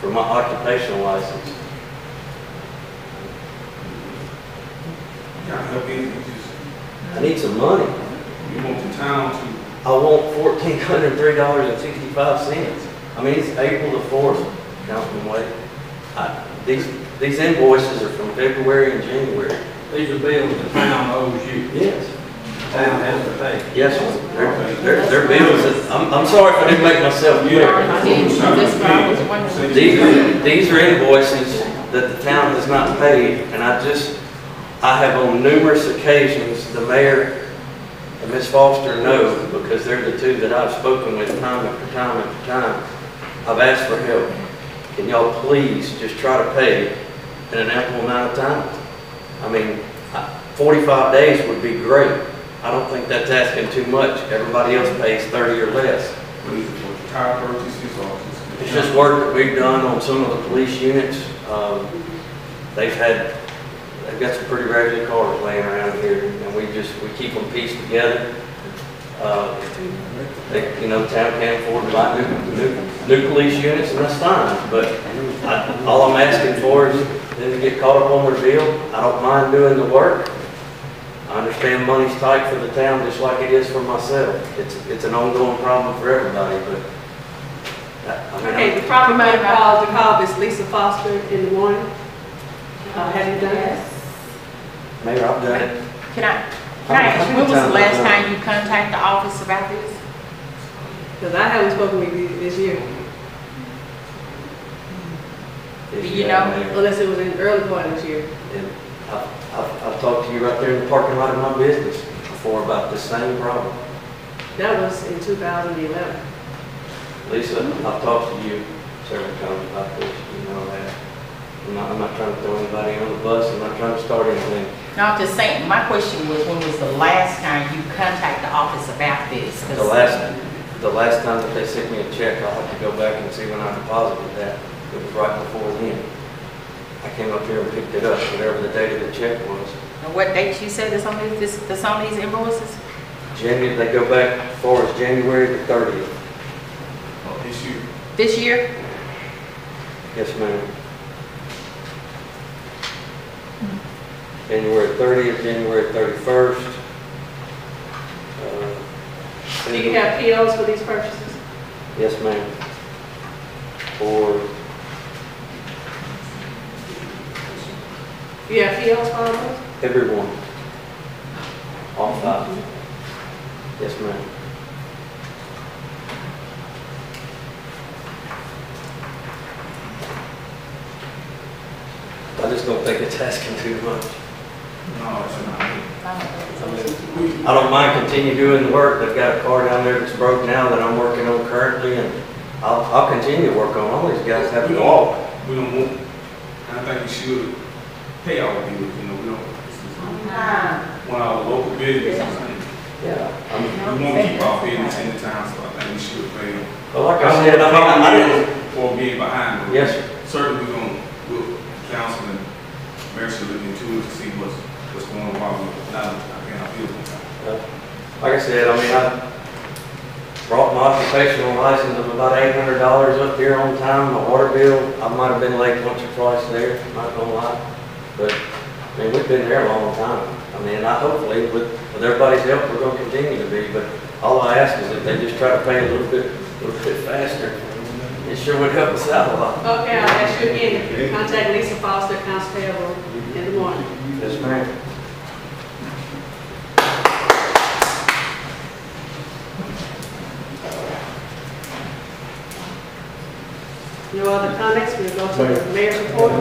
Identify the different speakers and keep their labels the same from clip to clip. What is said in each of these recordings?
Speaker 1: for my occupational license.
Speaker 2: Can I help you? You just-
Speaker 1: I need some money.
Speaker 2: You want the town to,
Speaker 1: I want fourteen hundred and three dollars and sixty-five cents. I mean, it's April the fourth, Councilman Wade. I- These, these invoices are from February and January.
Speaker 3: These are bills the town owes you.
Speaker 1: Yes.
Speaker 3: The town has to pay.
Speaker 1: Yes, sir. They're, they're, they're bills that, I'm, I'm sorry if I didn't make myself clear.
Speaker 4: That's what I was wondering.
Speaker 1: These are, these are invoices that the town has not paid, and I just, I have on numerous occasions, the mayor and Ms. Foster know, because they're the two that I've spoken with time after time after time. I've asked for help. Can y'all please just try to pay in an ample amount of time? I mean, I- forty-five days would be great. I don't think that's asking too much. Everybody else pays thirty or less.
Speaker 2: what is it, what the tire purchases or just?
Speaker 1: It's just work that we've done on some of the police units. Um, They've had, they've got some pretty raggedy cars laying around here, and we just, we keep them pieced together. Uh, They, you know, town can't afford to buy new, new, new police units, and that's fine, but I- all I'm asking for is them to get caught up on their bill. I don't mind doing the work. I understand money's tight for the town, just like it is for myself. It's, it's an ongoing problem for everybody, but. I- I mean, I'm-
Speaker 5: Okay, the problem I called, the call is Lisa Foster in the morning. Uh, Have you done it?
Speaker 1: Mayor, I've done it.
Speaker 4: Can I, can I ask you, when was the last time you contacted the office about this?
Speaker 5: Because I haven't spoken with you this year,
Speaker 1: Yes,
Speaker 4: You
Speaker 1: have,
Speaker 4: know.
Speaker 1: Mayor.
Speaker 5: unless it was in the early part of this year.
Speaker 1: And I've, I've, I've talked to you right there in the parking lot of my business before about this same problem.
Speaker 5: That was in 2011.
Speaker 1: Lisa, I've talked to you several times about this, you know that. I'm not, I'm not trying to throw anybody on the bus, I'm not trying to start anything.
Speaker 4: No, I'm just saying, my question was, when was the last time you contacted the office about this? 'Cause-
Speaker 1: The last, the last time that they sent me a check, I'll have to go back and see when I deposited that. It was right before then. I came up here and picked it up, whatever the date of the check was.
Speaker 4: And What date you said that's on these, this- that's on these invoices?
Speaker 1: January, they go back as far as January the thirtieth.
Speaker 2: Or issue,
Speaker 4: This year?
Speaker 1: Yes, ma'am. January thirtieth, January thirty-first. Uh,
Speaker 5: Do you have POs for these purchases?
Speaker 1: Yes, ma'am. For,
Speaker 5: You have POs for all those?
Speaker 1: Everyone. All five. Yes, ma'am. I just don't think it's asking too much.
Speaker 2: no, it's not.
Speaker 1: I don't mind continue doing the work. They've got a car down there that's broke now that I'm working on currently, and I'll, I'll continue to work on. All these guys have to walk.
Speaker 2: We don't want, I think we should pay our bills, you know, we don't, this is one of our local businesses. and
Speaker 1: Yeah.
Speaker 2: We want to keep our business in the town, so I think we should pay them.
Speaker 1: But like I said, I mean, I I didn't,
Speaker 2: For being behind. but
Speaker 1: yes, sir.
Speaker 2: Certainly, we're going, we'll, council and mayor should look into it to see what's, what's going on, why we're not, I can't appeal.
Speaker 1: Like I said, I mean, I brought my occupational license of about eight hundred dollars up here on time, my water bill. I might have been late once or twice there, not gonna lie. But, I mean, we've been there a long time. I mean, I hopefully, with, with everybody's help, we're gonna continue to be, but all I ask is if they just try to pay a little bit, a little bit faster. It sure would help us out a lot.
Speaker 5: Okay, I'll ask you again, if you contact Lisa Foster, constable, in the morning.
Speaker 1: Yes, ma'am.
Speaker 5: No other comments, we'll go to the mayor's report.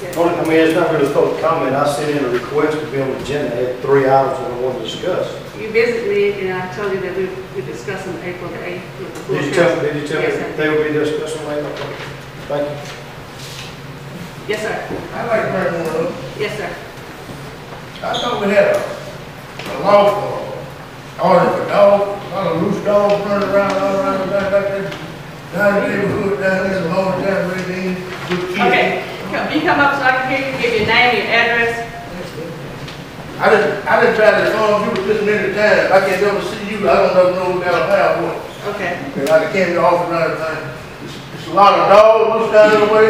Speaker 5: Yes.
Speaker 6: Only, I mean, it's not really a public comment, I sent in a request to be on the agenda, I had three items that I wanted to discuss.
Speaker 5: You visited me, and I told you that we, we discussed on April the eighth with the full
Speaker 6: Did you
Speaker 5: council.
Speaker 6: tell, did you tell
Speaker 5: Yes, sir.
Speaker 6: me they would be discussing later? Thank you.
Speaker 5: Yes, sir.
Speaker 7: I'd like to bring one up.
Speaker 5: Yes, sir.
Speaker 7: I thought we had a, a law for, order for dogs, a lot of loose dogs running around, all around, the back back there. Down in the neighborhood, down there, the whole town, we need good kids.
Speaker 5: Okay, come, you come up so I can hear you, give your name, your address.
Speaker 7: I done, I done tried to phone you this many times, I can't ever see you, I don't know no down how,
Speaker 5: Okay,
Speaker 7: and I can't be off another thing. It's- It's There's a lot of dogs loose down the way